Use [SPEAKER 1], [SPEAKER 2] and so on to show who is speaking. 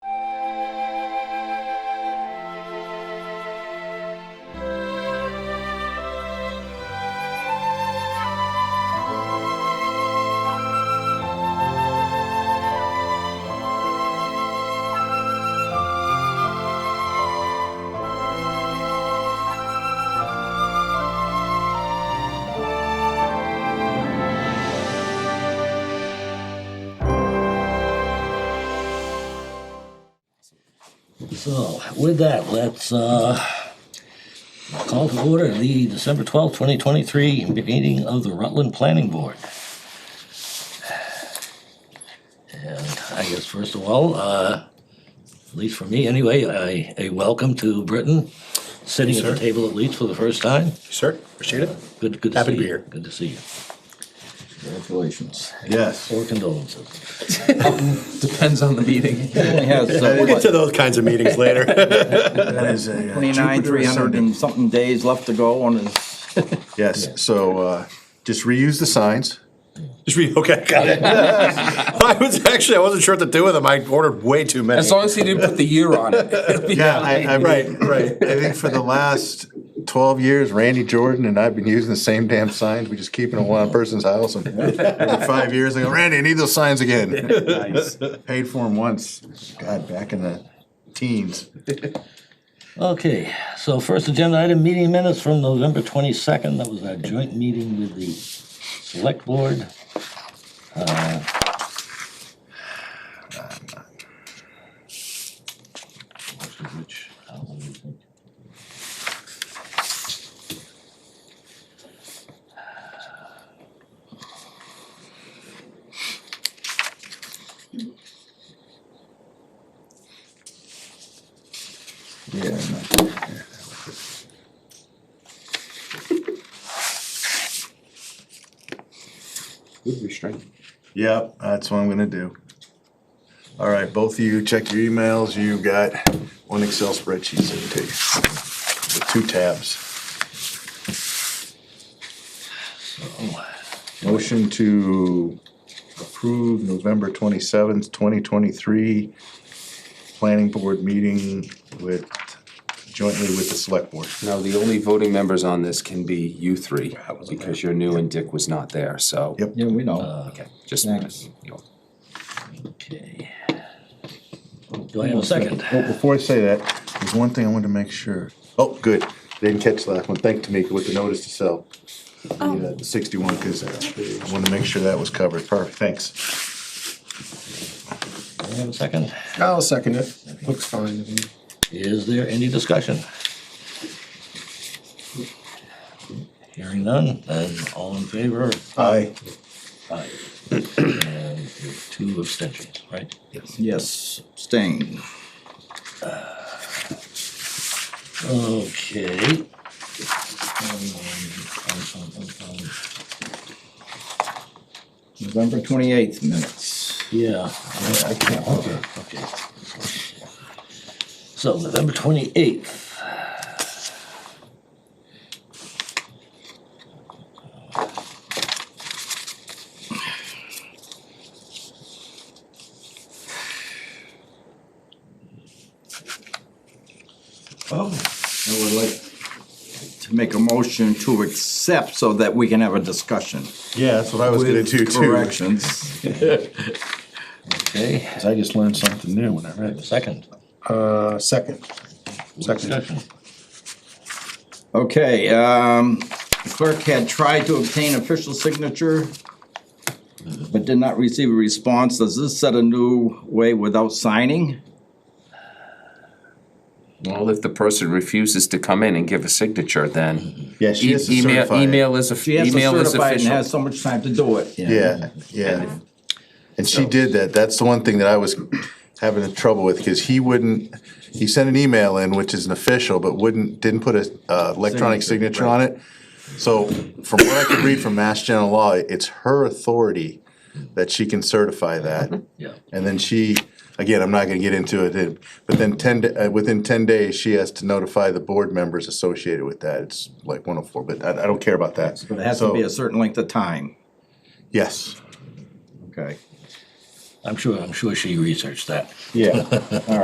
[SPEAKER 1] So with that, let's, uh, call to order the December twelfth, twenty twenty-three meeting of the Rutland Planning Board. And I guess first of all, uh, at least for me anyway, I, a welcome to Britain, sitting at the
[SPEAKER 2] Sir.
[SPEAKER 1] table at least for the first time.
[SPEAKER 2] Sir, appreciate it.
[SPEAKER 1] Good, good to see you.
[SPEAKER 2] Happy to be here.
[SPEAKER 1] Good to see you.
[SPEAKER 3] Congratulations.
[SPEAKER 2] Yes.
[SPEAKER 1] Or condolences.
[SPEAKER 3] Depends on the meeting. Only has,
[SPEAKER 2] We'll get to
[SPEAKER 3] uh,
[SPEAKER 2] those kinds of meetings later.
[SPEAKER 4] That is a. uh, Jupiter
[SPEAKER 5] Twenty-nine, three hundred
[SPEAKER 4] ascending.
[SPEAKER 5] and something days left to go on this.
[SPEAKER 4] Yes, so uh, just reuse the signs.
[SPEAKER 2] Just read, okay, got it. I was actually, I wasn't sure what to do with them. I ordered way too many.
[SPEAKER 3] as long as he didn't put the year on it. it'll be
[SPEAKER 4] Yeah, I, I,
[SPEAKER 3] fine.
[SPEAKER 4] right, right. I think for the last twelve years, Randy Jordan and I've been using the same damn signs. We just keep them in one person's house and every five years, I go, Randy, I need those signs again. Paid for them once, God, back in the teens.
[SPEAKER 1] Okay, so first agenda item, meeting minutes from November twenty-second, that was our joint meeting with the select board. Uh, most of which, I don't really think-
[SPEAKER 4] Yeah.
[SPEAKER 6] Good restraint.
[SPEAKER 4] Yep, that's what I'm gonna do. All right, both of you, check your emails. You got one Excel spreadsheet that you take with two tabs. Motion to approve November twenty-seventh, twenty twenty-three planning board meeting with, jointly with the select board.
[SPEAKER 6] Now, the only voting members on this can be you three, because you're new and Dick was not there, so.
[SPEAKER 4] Yep.
[SPEAKER 3] Yeah, we know.
[SPEAKER 6] Okay, just.
[SPEAKER 3] Thanks.
[SPEAKER 1] okay. Do I have a second?
[SPEAKER 4] Well, before I say that, there's one thing I wanted to make sure. Oh, good. Didn't catch the last one. Thank Tamika with the notice to sell. The, uh, the Sixty-one, cause I wanted to make sure that was covered. Perfect, thanks.
[SPEAKER 1] Do I have a second?
[SPEAKER 6] I'll second it. Looks fine.
[SPEAKER 1] Is there any discussion? Hearing none, then all in favor?
[SPEAKER 4] Aye.
[SPEAKER 1] Aye. And two abstentions, right?
[SPEAKER 5] Yes, staying.
[SPEAKER 1] Okay. Um, um, um, um, um,
[SPEAKER 5] November twenty-eighth minutes.
[SPEAKER 1] Yeah. I- I can't, okay, okay. So November twenty-eighth.
[SPEAKER 5] I would like to make a motion to accept so that we can have a discussion.
[SPEAKER 4] Yeah, that's what I was gonna
[SPEAKER 5] with
[SPEAKER 4] do too.
[SPEAKER 5] Corrections.
[SPEAKER 1] Okay,
[SPEAKER 4] I just learned something new when I read this.
[SPEAKER 1] second.
[SPEAKER 2] Uh, second.
[SPEAKER 1] Discussion.
[SPEAKER 5] Okay, um, the clerk had tried to obtain official signature, but did not receive a response. Does this set a new way without signing?
[SPEAKER 6] Well, if the person refuses to come in and give a signature, then.
[SPEAKER 4] Yeah, she
[SPEAKER 6] e-
[SPEAKER 4] has to
[SPEAKER 6] email-
[SPEAKER 4] certify it.
[SPEAKER 6] Email is,
[SPEAKER 5] She
[SPEAKER 6] a-
[SPEAKER 5] has to
[SPEAKER 6] email is
[SPEAKER 5] certify it and has
[SPEAKER 6] official.
[SPEAKER 5] so much time to do it.
[SPEAKER 4] Yeah, yeah. And she did that. That's the one thing that I was having trouble with, cause he wouldn't, he sent an email in, which is an official, but wouldn't, didn't put a, uh, electronic
[SPEAKER 5] Signature,
[SPEAKER 4] signature on it. So from what I could read from Mass General Law, it's her authority that she can certify that.
[SPEAKER 1] Yeah.
[SPEAKER 4] And then she, again, I'm not gonna get into it, but then ten, da- uh, within ten days, she has to notify the board members associated with that. It's like one oh four, but I, I don't care about that.
[SPEAKER 5] But it has to be a
[SPEAKER 4] So,
[SPEAKER 5] certain length of time.
[SPEAKER 4] Yes,
[SPEAKER 5] Okay.
[SPEAKER 1] I'm sure, I'm sure she researched that.
[SPEAKER 4] yeah.